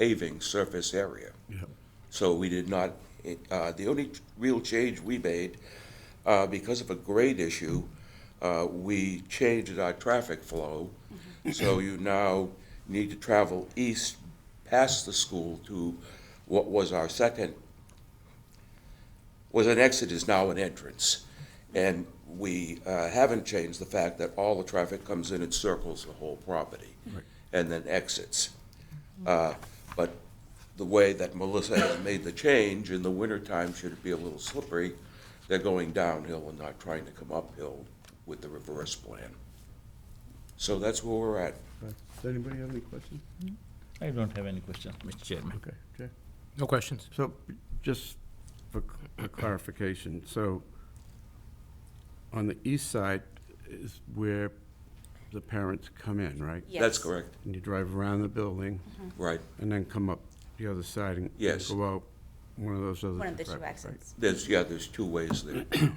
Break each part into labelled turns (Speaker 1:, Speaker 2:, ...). Speaker 1: paving surface area. So we did not, uh, the only real change we made, uh, because of a grade issue, uh, we changed our traffic flow. So you now need to travel east past the school to what was our second, was an exit is now an entrance. And we uh, haven't changed the fact that all the traffic comes in and circles the whole property and then exits. Uh, But the way that Melissa has made the change, in the wintertime, should it be a little slippery, they're going downhill and not trying to come uphill with the reverse plan. So that's where we're at.
Speaker 2: Does anybody have any questions?
Speaker 3: I don't have any questions, Mr. Chairman.
Speaker 2: Okay, Jack.
Speaker 4: No questions.
Speaker 2: So just for for clarification, so on the east side is where the parents come in, right?
Speaker 1: That's
Speaker 5: Yes.
Speaker 1: correct,
Speaker 2: And you drive around the building
Speaker 1: right.
Speaker 2: and then come up the other side and
Speaker 1: Yes.
Speaker 2: go out one of those other.
Speaker 5: One of the two
Speaker 2: driveways, right?
Speaker 5: exits.
Speaker 1: There's, yeah, there's two ways there. Yeah.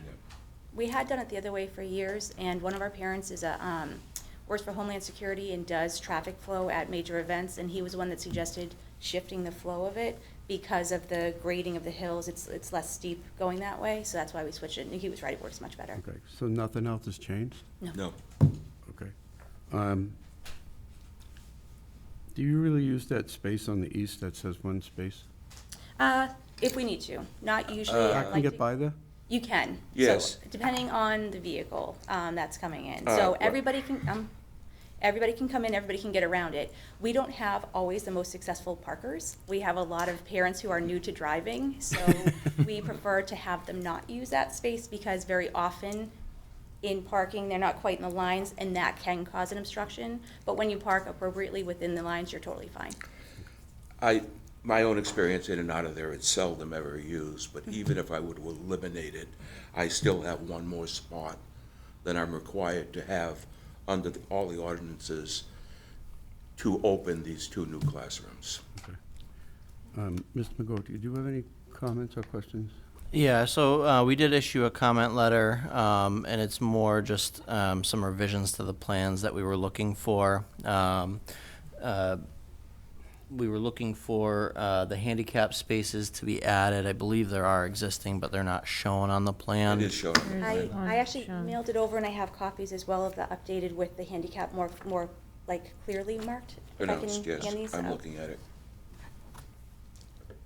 Speaker 5: We had done it the other way for years, and one of our parents is a, um, works for Homeland Security and does traffic flow at major events, and he was the one that suggested shifting the flow of it because of the grading of the hills, it's, it's less steep going that way, so that's why we switched it, and he was right, it works much better.
Speaker 2: Okay, so nothing else has changed?
Speaker 1: No,
Speaker 2: Okay. Um, Do you really use that space on the east that says one space?
Speaker 5: Uh, if we need to, not
Speaker 1: Uh,
Speaker 5: usually. I'd
Speaker 2: I can
Speaker 5: like
Speaker 2: get
Speaker 5: to-
Speaker 2: by there?
Speaker 5: You can. So,
Speaker 1: Yes.
Speaker 5: Depending on the vehicle, um, that's coming in.
Speaker 1: Uh,
Speaker 5: So
Speaker 1: right.
Speaker 5: everybody can, um, everybody can come in, everybody can get around it. We don't have always the most successful parkers. We have a lot of parents who are new to driving, so we prefer to have them not use that space because very often in parking, they're not quite in the lines and that can cause an obstruction. But when you park appropriately within the lines, you're totally fine.
Speaker 1: I, my own experience in and out of there, it's seldom ever used, but even if I would eliminate it, I still have one more spot that I'm required to have under the- all the ordinances to open these two new classrooms.
Speaker 2: Um, Mr. McGough, do you have any comments or questions?
Speaker 6: Yeah, so uh, we did issue a comment letter, um, and it's more just um, some revisions to the plans that we were looking for. Um, uh, we were looking for uh, the handicap spaces to be added. I believe there are existing, but they're not shown on the plan.
Speaker 1: It is showing.
Speaker 5: I,
Speaker 7: Right.
Speaker 5: I actually
Speaker 7: Sure.
Speaker 5: mailed it over and I have copies as well of the updated with the handicap more, more like clearly marked. Oh. If I can
Speaker 1: Pronounced, yes,
Speaker 5: hand these
Speaker 1: I'm
Speaker 5: out.
Speaker 1: looking at it.
Speaker 5: Do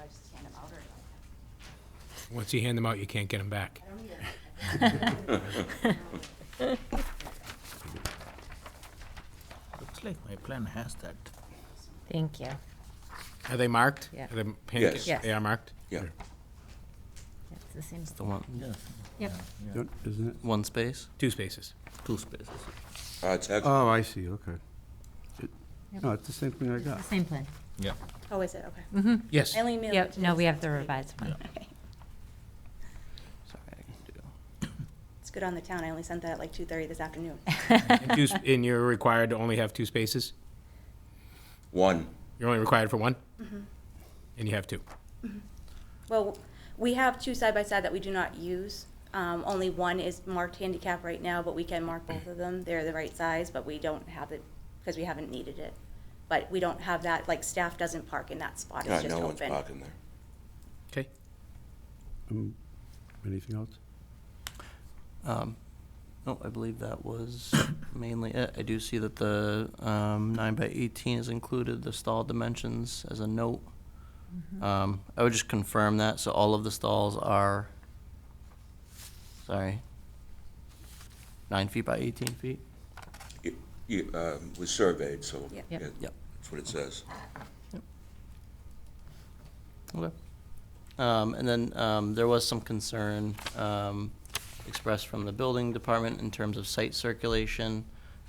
Speaker 5: I just hand them out or-
Speaker 4: Once you hand them out, you can't get them back.
Speaker 3: Looks like my plan has that.
Speaker 7: Thank you.
Speaker 4: Are they marked?
Speaker 7: Yeah.
Speaker 4: Are the pancakes-
Speaker 7: Yes.
Speaker 4: They are marked?
Speaker 1: Yeah,
Speaker 7: It's the same.
Speaker 6: The one,
Speaker 3: Yes.
Speaker 7: Yep.
Speaker 2: Don't- Isn't it?
Speaker 6: one space,
Speaker 4: Two spaces.
Speaker 6: two spaces.
Speaker 1: Uh, it's actually
Speaker 2: Oh, I see, okay. It- No, it's the same thing I
Speaker 7: It's
Speaker 2: got.
Speaker 7: the same plan.
Speaker 3: Yeah.
Speaker 5: Oh, is it? Okay.
Speaker 4: Yes.
Speaker 5: I only mailed it
Speaker 7: Yep,
Speaker 5: to
Speaker 7: no,
Speaker 5: this-
Speaker 7: we have the revised one.
Speaker 6: Sorry, I can do.
Speaker 5: It's good on the town. I only sent that at like two thirty this afternoon.
Speaker 4: And two sp- And you're required to only have two spaces?
Speaker 1: one.
Speaker 4: You're only required for one? And you have two?
Speaker 5: Well, we have two side by side that we do not use. Um, only one is marked handicap right now, but we can mark both of them. They're the right size, but we don't have it because we haven't needed it. But we don't have that, like staff doesn't park in that spot. It's
Speaker 1: God,
Speaker 5: just
Speaker 1: no one's
Speaker 5: open.
Speaker 1: parking there.
Speaker 4: Okay.
Speaker 2: Um, Anything else?
Speaker 6: Um, no, I believe that was mainly it. I do see that the um, nine by eighteen is included, the stall dimensions as a note. Um, I would just confirm that, so all of the stalls are, sorry, nine feet by eighteen feet?
Speaker 1: It, it, um, was surveyed, so.
Speaker 5: Yep.
Speaker 7: Yep.
Speaker 1: it-
Speaker 6: Yep.
Speaker 1: That's what it says.
Speaker 6: Okay. Um, and then, um, there was some concern, um, expressed from the building department in terms of site circulation.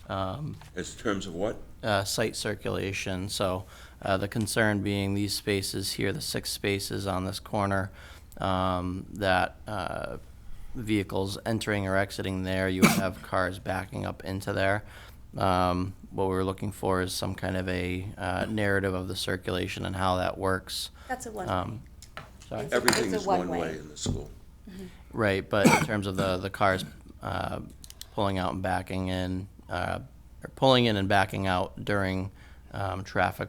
Speaker 6: Um,
Speaker 1: As terms of what?
Speaker 6: uh, site circulation. So uh, the concern being these spaces here, the six spaces on this corner, um, that uh, vehicles entering or exiting there, you would have cars backing up into there. Um, What we're looking for is some kind of a uh, narrative of the circulation and how that works.
Speaker 5: That's a one.
Speaker 7: Oh.
Speaker 6: Um, Sorry.
Speaker 5: It's a-
Speaker 1: Everything
Speaker 5: it's a
Speaker 1: is one
Speaker 5: one-way.
Speaker 1: way in the school.
Speaker 6: Right, but in terms of the, the cars uh, pulling out and backing in, uh, or pulling in and backing out during um, traffic